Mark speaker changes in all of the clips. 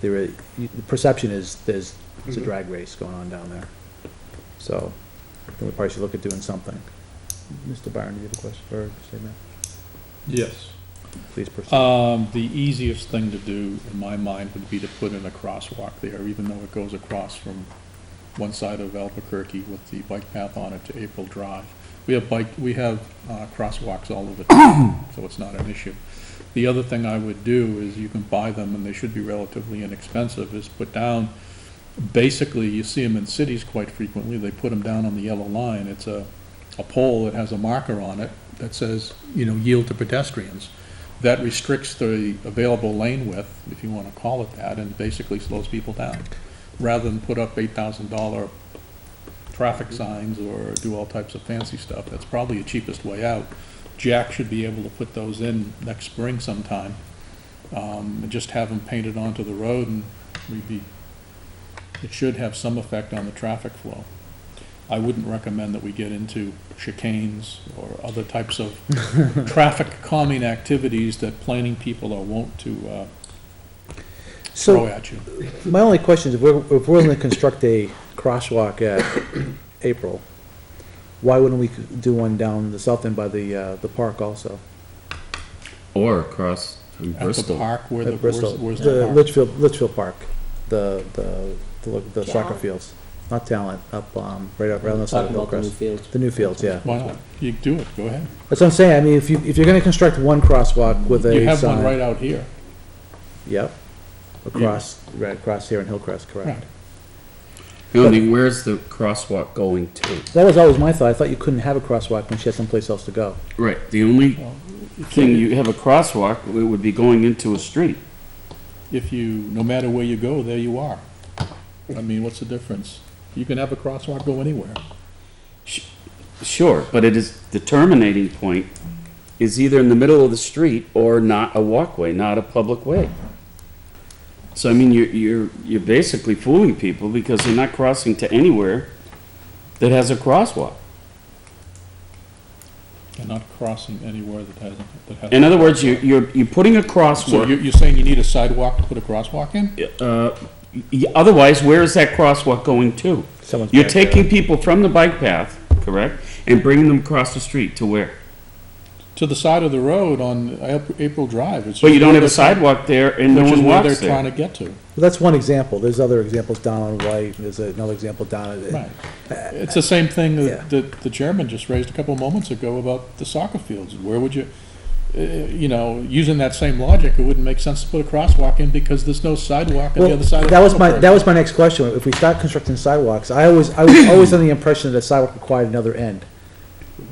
Speaker 1: there, are- you- the perception is there's, it's a drag race going on down there. So, I think we probably should look at doing something. Mr. Byron, do you have a question or statement?
Speaker 2: Yes.
Speaker 1: Please proceed.
Speaker 2: Um, the easiest thing to do, in my mind, would be to put in a crosswalk there, even though it goes across from one side of Albuquerque with the bike path on it to April Drive. We have bike, we have, uh, crosswalks all over town, so it's not an issue. The other thing I would do is you can buy them, and they should be relatively inexpensive, is put down, basically, you see them in cities quite frequently, they put them down on the yellow line. It's a, a pole that has a marker on it that says, you know, yield to pedestrians that restricts the available lane width, if you want to call it that, and basically slows people down, rather than put up eight thousand dollar traffic signs or do all types of fancy stuff. That's probably the cheapest way out. Jack should be able to put those in next spring sometime, um, and just have them painted onto the road, and we'd be, it should have some effect on the traffic flow. I wouldn't recommend that we get into chicanes or other types of traffic calming activities that planning people are wont to uh, throw
Speaker 1: So,
Speaker 2: at you.
Speaker 1: my only question is, if we're, if we're gonna construct a crosswalk at April, why wouldn't we do one down the south end by the, uh, the park also?
Speaker 3: Or across from
Speaker 2: At the
Speaker 3: Bristol.
Speaker 2: park, where the,
Speaker 1: At
Speaker 2: where's
Speaker 1: Bristol,
Speaker 2: where's
Speaker 1: the
Speaker 2: the park?
Speaker 1: Litchfield, Litchfield Park, the, the, the lo- the soccer
Speaker 4: Talent.
Speaker 1: fields. Not talent, up, um, right up, right on the side of
Speaker 5: Talking about the new
Speaker 1: Hillcrest.
Speaker 5: field.
Speaker 1: The new fields, yeah.
Speaker 2: Why not? You do it, go ahead.
Speaker 1: That's what I'm saying, I mean, if you, if you're gonna construct one crosswalk with a sign.
Speaker 2: You have one right out here.
Speaker 1: Yep, across, right across here in Hillcrest, correct.
Speaker 2: Right.
Speaker 3: The only thing, where's the crosswalk going to?
Speaker 1: That was always my thought, I thought you couldn't have a crosswalk when she had someplace else to go.
Speaker 3: Right, the only
Speaker 2: Well,
Speaker 3: thing, you have a crosswalk, it would be going into a street.
Speaker 2: If you, no matter where you go, there you are. I mean, what's the difference? You can have a crosswalk go anywhere.
Speaker 3: Sure, but it is, the terminating point is either in the middle of the street or not a walkway, not a public way. So I mean, you're, you're, you're basically fooling people because they're not crossing to anywhere that has a crosswalk.
Speaker 2: You're not crossing anywhere that hasn't, that hasn't.
Speaker 3: In other words, you, you're, you're putting a
Speaker 2: So
Speaker 3: crosswalk,
Speaker 2: you're, you're saying you need a sidewalk to put a crosswalk in?
Speaker 3: uh, y- y- otherwise, where is that crosswalk going to?
Speaker 1: Someone's
Speaker 3: You're
Speaker 1: back there.
Speaker 3: taking people from the bike path, correct, and bringing them across the street to where?
Speaker 2: To the side of the road on Ap- April Drive. it's
Speaker 3: But you
Speaker 2: just
Speaker 3: don't
Speaker 2: where
Speaker 3: have a
Speaker 2: they're trying-
Speaker 3: sidewalk there and no
Speaker 2: which is
Speaker 3: one
Speaker 2: where
Speaker 3: walks
Speaker 2: They're trying
Speaker 3: there.
Speaker 2: to get to,
Speaker 1: Well, That's one example, there's other examples down on White, there's another example down at,
Speaker 2: right. It's the same thing
Speaker 1: Uh, Yeah.
Speaker 2: that, that the chairman just raised a couple moments ago about the soccer fields. Where would you, uh, you know, using that same logic, it wouldn't make sense to put a crosswalk in because there's no sidewalk on the
Speaker 1: Well,
Speaker 2: other side of the
Speaker 1: that was my,
Speaker 2: road.
Speaker 1: that was my next question, if we start constructing sidewalks, I always, I was always under the impression that a sidewalk required another end.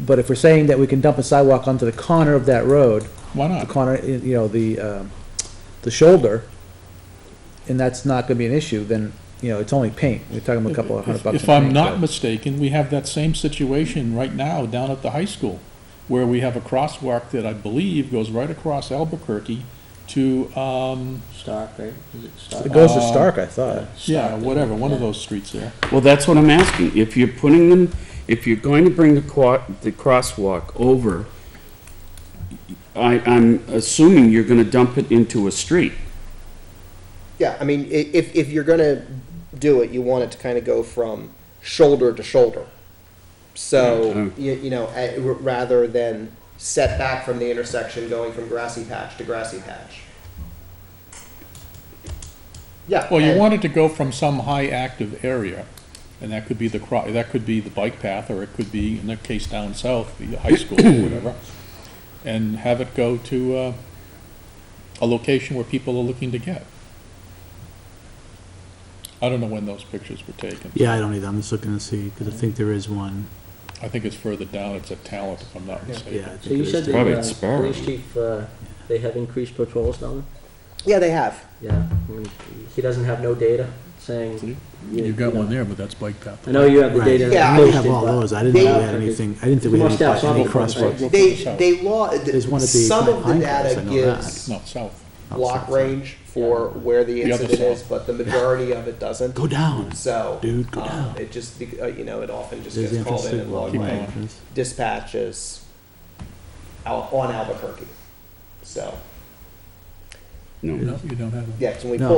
Speaker 1: But if we're saying that we can dump a sidewalk onto the corner of that road,
Speaker 2: Why
Speaker 1: the
Speaker 2: not?
Speaker 1: corner, you know, the, um, the shoulder, and that's not gonna be an issue, then, you know, it's only paint, we're talking about a couple of hundred
Speaker 2: If
Speaker 1: bucks.
Speaker 2: if
Speaker 1: in
Speaker 2: I'm
Speaker 1: paint,
Speaker 2: not
Speaker 1: but-
Speaker 2: mistaken, we have that same situation right now down at the high school, where we have a crosswalk that I believe goes right across Albuquerque to, um,
Speaker 5: Stark, right? Is it Stark?
Speaker 1: It goes to Stark, I thought.
Speaker 2: yeah, whatever, one of
Speaker 5: Yeah.
Speaker 2: those streets there.
Speaker 3: Well, that's what I'm asking. If you're putting them, if you're going to bring the qua, the crosswalk over, I, I'm assuming you're gonna dump it into a street.
Speaker 4: Yeah, I mean, i- if, if you're gonna do it, you want it to kind of go from shoulder to shoulder. So, you, you know, eh, r- rather than set back from the intersection going from grassy patch to grassy patch. Yeah.
Speaker 2: Well, you
Speaker 4: and-
Speaker 2: want it to go from some high active area, and that could be the, cro- that could be the bike path, or it could be, in that case down south, the high school or whatever, and have it go to uh, a location where people are looking to get. I don't know when those pictures were taken.
Speaker 6: Yeah, I don't either. I'm just looking to see, because I think there is one.
Speaker 2: I think it's further down, it's a talent, if I'm not
Speaker 6: Yeah. I
Speaker 2: mistaken.
Speaker 6: think
Speaker 5: So you
Speaker 6: there is
Speaker 5: said
Speaker 6: two.
Speaker 3: Probably
Speaker 5: that,
Speaker 3: it's
Speaker 5: uh,
Speaker 3: Sparrow.
Speaker 5: police chief, uh, they have increased patrols down
Speaker 4: Yeah, they have.
Speaker 5: there? Yeah, I mean, he doesn't have no data saying.
Speaker 2: You've got one there, but that's bike path.
Speaker 5: I know you have the
Speaker 6: Right.
Speaker 5: data.
Speaker 4: Yeah, I
Speaker 6: We
Speaker 5: posted,
Speaker 6: have all
Speaker 5: but
Speaker 6: those. I didn't know we had
Speaker 5: they-
Speaker 6: anything, I didn't think we
Speaker 5: You
Speaker 6: had
Speaker 5: must
Speaker 6: any
Speaker 5: have
Speaker 6: any
Speaker 5: some crosswalks.
Speaker 6: crosswalks.
Speaker 2: Go
Speaker 4: They,
Speaker 2: further south.
Speaker 4: they law, th-
Speaker 6: There's one at the
Speaker 4: some of the
Speaker 6: Pine Crest,
Speaker 4: data
Speaker 6: I know
Speaker 4: gives
Speaker 2: No, south.
Speaker 4: block range for where the
Speaker 2: The other
Speaker 4: incident is,
Speaker 2: side.
Speaker 4: but the majority of it doesn't.
Speaker 6: Go down.
Speaker 4: So.
Speaker 6: Dude, go
Speaker 4: um,
Speaker 6: down.
Speaker 4: It just, bec- uh, you know, it often just
Speaker 6: There's the
Speaker 4: gets called
Speaker 6: entrance
Speaker 4: in
Speaker 6: to
Speaker 4: and
Speaker 6: Wall
Speaker 4: logged
Speaker 2: Keep
Speaker 4: by
Speaker 2: going.
Speaker 6: Entrance.
Speaker 4: dispatches out on Albuquerque. So,
Speaker 3: No.
Speaker 2: No, you don't have one.
Speaker 4: yeah, 'cause when we
Speaker 6: No.
Speaker 4: pull,